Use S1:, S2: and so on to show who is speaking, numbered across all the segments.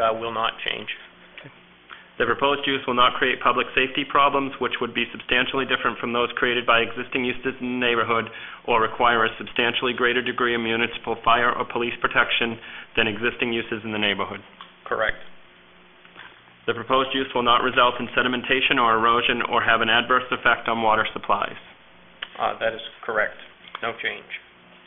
S1: uh, will not change.
S2: The proposed use will not create public safety problems, which would be substantially different from those created by existing uses in the neighborhood or require a substantially greater degree of municipal fire or police protection than existing uses in the neighborhood.
S1: Correct.
S2: The proposed use will not result in sedimentation or erosion or have an adverse effect on water supplies.
S1: Uh, That is correct. No change.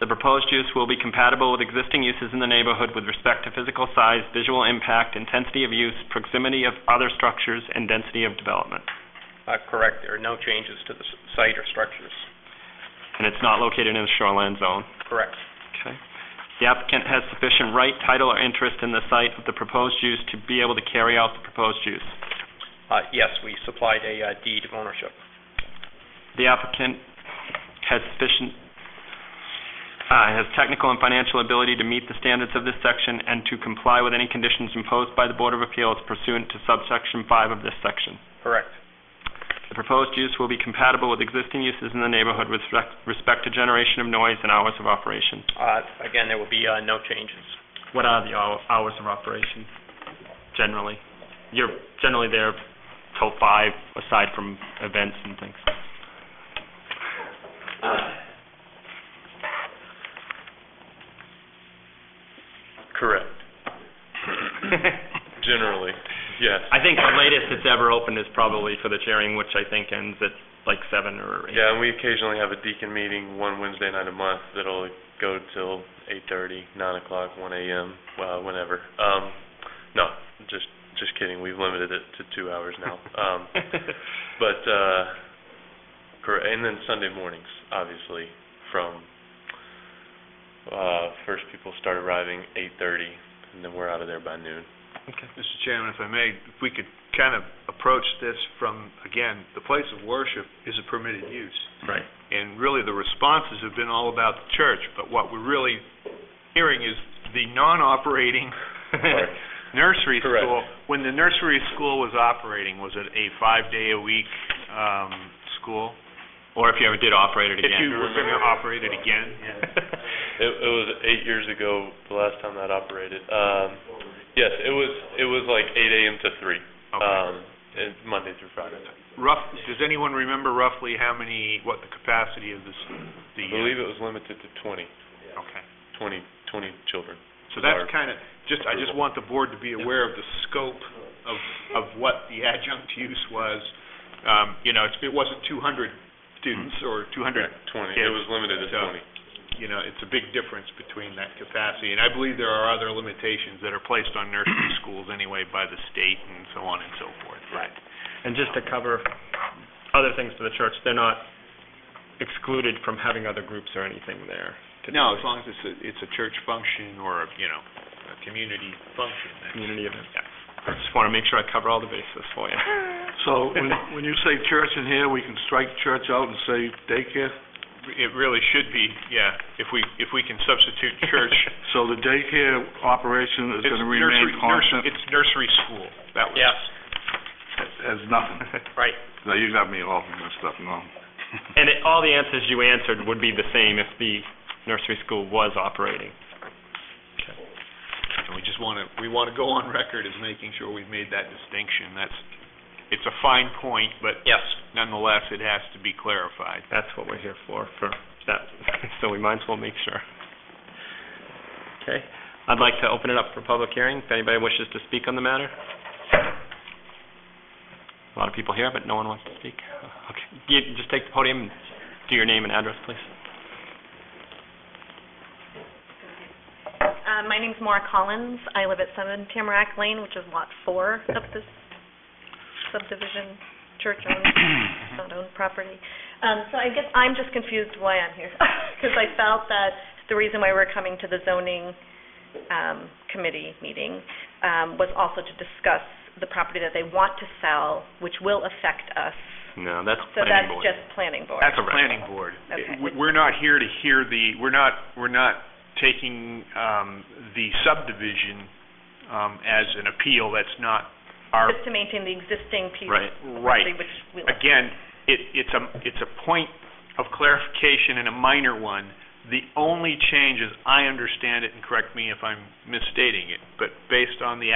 S2: The proposed use will be compatible with existing uses in the neighborhood with respect to physical size, visual impact, intensity of use, proximity of other structures, and density of development.
S1: Uh, Correct. There are no changes to the s- site or structures.
S2: And it's not located in a shoreline zone.
S1: Correct.
S2: Okay. The applicant has sufficient right, title, or interest in the site of the proposed use to be able to carry out the proposed use.
S1: Uh, Yes, we supplied a uh, deed of ownership.
S2: The applicant has sufficient, uh, has technical and financial ability to meet the standards of this section and to comply with any conditions imposed by the Board of Appeals pursuant to subsection 5 of this section.
S1: Correct.
S2: The proposed use will be compatible with existing uses in the neighborhood with respect- respect to generation of noise and hours of operation.
S1: Uh, Again, there will be uh, no changes.
S2: What are the hou- hours of operation generally? You're generally there till five, aside from events and things.
S3: Correct. Generally, yes.
S2: I think the latest it's ever opened is probably for the chairing, which I think ends at like seven or eight.
S3: Yeah, and we occasionally have a deacon meeting one Wednesday night a month that'll go till eight thirty, nine o'clock, one AM, well, whenever. Um, no, just, just kidding. We've limited it to two hours now. Um, but, uh, correct, and then Sunday mornings, obviously, from, uh, first people start arriving eight thirty, and then we're out of there by noon.
S4: Mr. Chairman, if I may, if we could kind of approach this from, again, the place of worship is a permitted use.
S2: Right.
S4: And really, the responses have been all about the church, but what we're really hearing is the non-operating
S3: Right.
S4: nursery
S3: Correct.
S4: school. When the nursery school was operating, was it a five-day-a-week um, school?
S2: Or if you ever did operate it
S4: If you
S2: again.
S4: were going to operate it again?
S3: It, it was eight years ago, the last time that operated. Um, yes, it was, it was like eight AM to three,
S4: Okay.
S3: um, and Monday through Friday.
S4: Rough, does anyone remember roughly how many, what the capacity of this, the...
S3: I believe it was limited to twenty,
S4: Okay.
S3: twenty, twenty children.
S4: So that's
S3: Our-
S4: kind of, just, I just want the board to be aware of the scope of, of what the adjunct use was. Um, you know, it's, it wasn't two hundred students
S5: Mm-hmm.
S4: or two hundred,
S3: Twenty,
S4: kids.
S3: it was limited to
S4: So-
S3: twenty.
S4: you know, it's a big difference between that capacity. And I believe there are other limitations that are placed on nursery schools anyway by the state and so on and so forth. Right.
S2: And just to cover other things for the church, they're not excluded from having other groups or anything there.
S4: No, as long as it's a, it's a church function or, you know, a community function. that's-
S2: Community event. I just want to make sure I cover all the bases for you.
S5: So when, when you say church in here, we can strike church out and say daycare?
S4: It really should be, yeah, if we, if we can substitute church
S5: So the daycare operation is
S4: It's
S5: gonna
S4: nursery-
S5: remain
S4: nursery-
S5: constant?
S4: It's nursery school. That was.
S1: Yes,
S5: As nothing,
S1: right.
S5: no, you got me all messed up, no.
S2: And it- all the answers you answered would be the same if the nursery school was operating.
S4: And we just want to, we want to go on record as making sure we've made that distinction. That's, it's a fine point, but
S1: Yes,
S4: nonetheless, it has to be clarified.
S2: That's what we're here for, for that, so we might as well make sure. Okay, I'd like to open it up for public hearing, if anybody wishes to speak on the matter. A lot of people here, but no one wants to speak. Okay, you just take the podium and do your name and address, please.
S6: Uh, my name's Maura Collins. I live at Seven Tamarack Lane, which is lot four of this subdivision, church-owned, not-owned property. Um, so I guess I'm just confused why I'm here, because I felt that the reason why we're coming to the zoning, um, committee meeting, um, was also to discuss the property that they want to sell, which will affect us.
S2: No, that's
S6: So
S2: planning
S6: that's
S2: board.
S6: just planning board.
S4: That's planning board.
S6: Okay.
S4: We- We're not here to hear the, we're not, we're not taking um, the subdivision um, as an appeal. That's not our
S6: Just to maintain the existing piece of
S2: Right.
S4: right.
S6: property, which we like.
S4: again, it, it's a, it's a point of clarification and a minor one. The only change, as I understand it, and correct me if I'm misstating it, but based on the